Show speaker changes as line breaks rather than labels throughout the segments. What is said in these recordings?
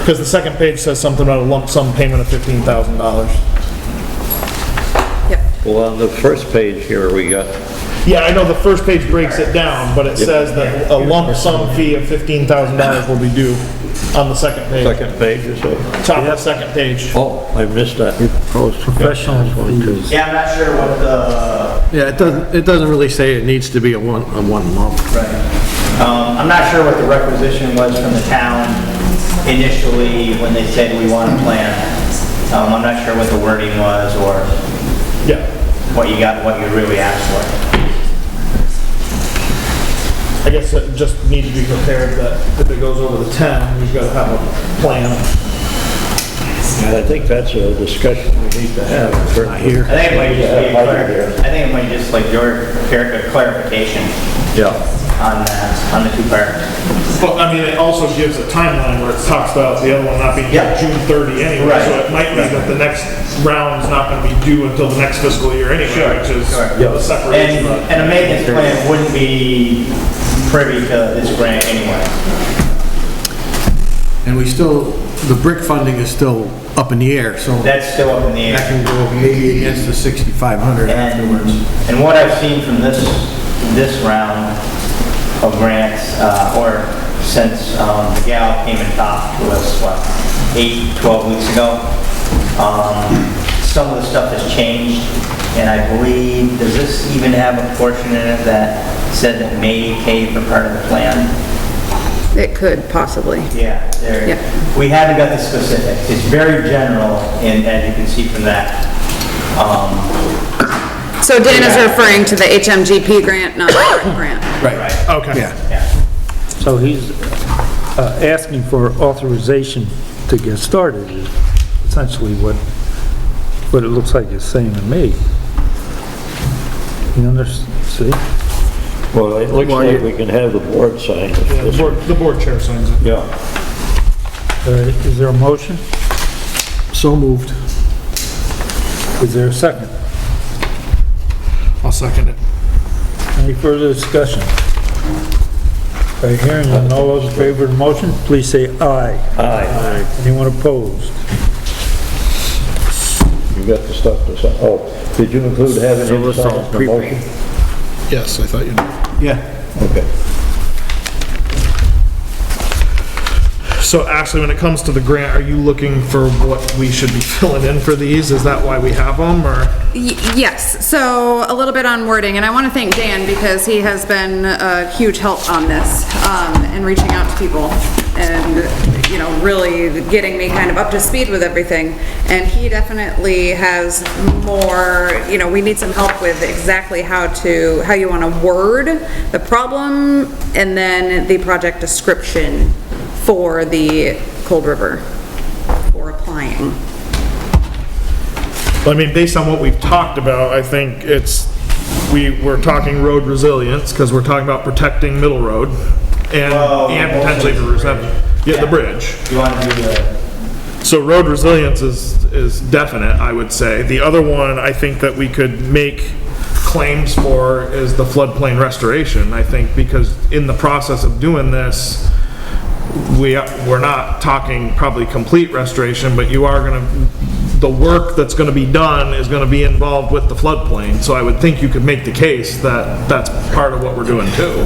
Because the second page says something about a lump sum payment of fifteen thousand dollars.
Yep.
Well, on the first page here, we got,
Yeah, I know the first page breaks it down, but it says that a lump sum fee of fifteen thousand dollars will be due on the second page,
second page or so?
top of the second page.
Oh, I missed that.
Professional fees.
Yeah, I'm not sure what the,
Yeah, it doesn't, it doesn't really say it needs to be a one, a one lump.
um, I'm not sure what the requisition was from the town initially when they said we want a plan. Um, I'm not sure what the wording was or
Yeah,
what you got, what you really asked for.
I guess it just need to be prepared that if it goes over the ten, we've got to have a plan.
And I think that's a discussion we need to have. Not here.
I think it might just be, a clar- I think it might just like your clar- clarification
Yeah,
on that, on the two parts.
But I mean, it also gives a timeline where it talks about the other one not being due
Yeah.
June thirty anyway.
Right.
So it might be that the next round's not going to be due until the next fiscal year anyway, which is
Sure.
the separation.
And, and a maintenance plan wouldn't be privy to this grant anyway.
And we still, the brick funding is still up in the air, so that
That's still up in the air.
can go maybe against the
And,
6,500 afterwards.
and what I've seen from this, this round of grants, uh, or since, um, the gal came and talked to us, what, eight, 12 weeks ago, um, some of the stuff has changed, and I believe, does this even have a portion in it that said that may pay for part of the plan?
It could possibly.
Yeah,
Yeah.
there, we haven't got the specifics. It's very general, and as you can see from that, um,
So Dana's referring to the HMGP grant, not the brick grant.
Right,
Okay.
yeah.
yeah.
So he's uh, asking for authorization to get started, is essentially what, what it looks like it's saying to me. You understand, see? Uh,
well, it looks like we can have the board sign
Yeah, The
this.
board, the board chair signs it.
Yeah,
All right, Is there a motion?
So moved.
Is there a second?
I'll second it.
Any further discussion? By hearing none, all those in favor of the motion, please say aye.
aye.
Anyone opposed?
You got the stuff to sign. Oh, did you include having him sign the motion?
Yes, I thought you Yeah.
Okay.
So Ashley, when it comes to the grant, are you looking for what we should be filling in for these? Is that why we have them, or?
Y- Yes, so a little bit on wording, and I want to thank Dan because he has been a huge help on this um, and reaching out to people and, you know, really getting me kind of up to speed with everything. And he definitely has more, you know, we need some help with exactly how to, how you want to word the problem and then the project description for the Cold River for applying.
I mean, based on what we've talked about, I think it's, we, we're talking road resilience, because we're talking about protecting Middle Road, and,
Well,
and potentially
also
for
Oh, the bridge.
reception. Yeah, the bridge.
You want to do the
So road resilience is, is definite, I would say. The other one I think that we could make claims for is the floodplain restoration, I think, because in the process of doing this, we, we're not talking probably complete restoration, but you are gonna, the work that's gonna be done is gonna be involved with the floodplain. So I would think you could make the case that that's part of what we're doing too.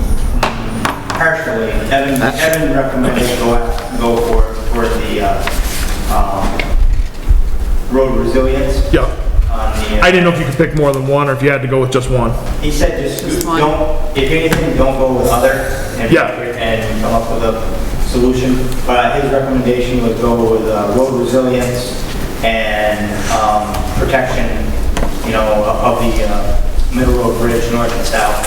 Partially, Evan, Evan recommended go, go for, for the, uh, um, road resilience.
Yeah.
On
I
the,
didn't know if you could pick more than one or if you had to go with just one.
uh, he said just
one.
don't, if anything, don't go with other. and-
Yeah.
And come up with a solution, but his recommendation was go with, uh, road resilience and, um, protection, you know, of the, uh, Middle Road Bridge, north and south.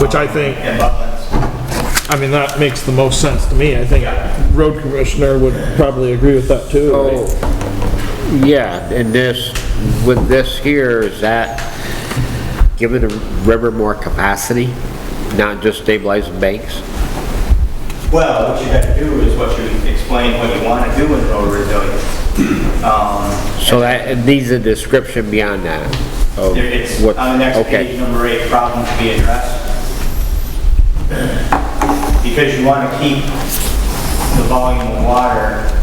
Which I think-
And Bucklands.
I mean, that makes the most sense to me. I think road commissioner would probably agree with that too. right?
Yeah, and this, with this here, is that giving the river more capacity, not just stabilizing banks?
Well, what you have to do is what you explain what you want to do with road resilience. Um,
So that, it needs a description beyond that of
there- It's
what,
on the next
okay.
page, number eight, problems to be addressed. Because you want to keep the volume of water